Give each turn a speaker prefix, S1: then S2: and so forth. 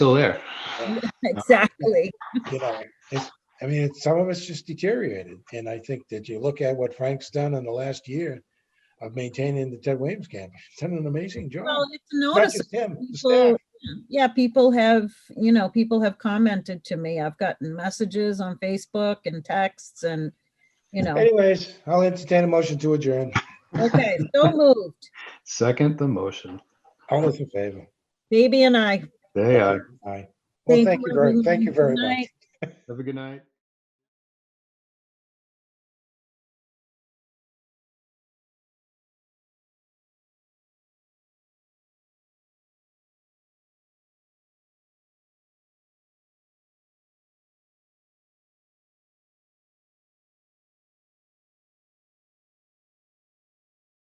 S1: still there.
S2: Exactly.
S3: you know, it's, I mean, it's, some of it's just deteriorated. And I think that you look at what Frank's done in the last year of maintaining the Ted Williams camp, he's done an amazing job.
S2: Well, it's
S3: Not
S2: noticeable.
S3: just him, the
S2: people-
S3: staff.
S2: Yeah, people have, you know, people have commented to me. I've gotten messages on Facebook and texts and, you know,
S3: Anyways, I'll entertain a motion to adjourn.
S2: okay, so moved.
S1: Second the motion.
S3: All those in favor?
S2: Baby and I.
S1: They are.
S3: Aye. Well, thank you very,
S2: everyone.
S3: thank you very
S2: Good
S3: much.
S2: night.
S1: Have a good night.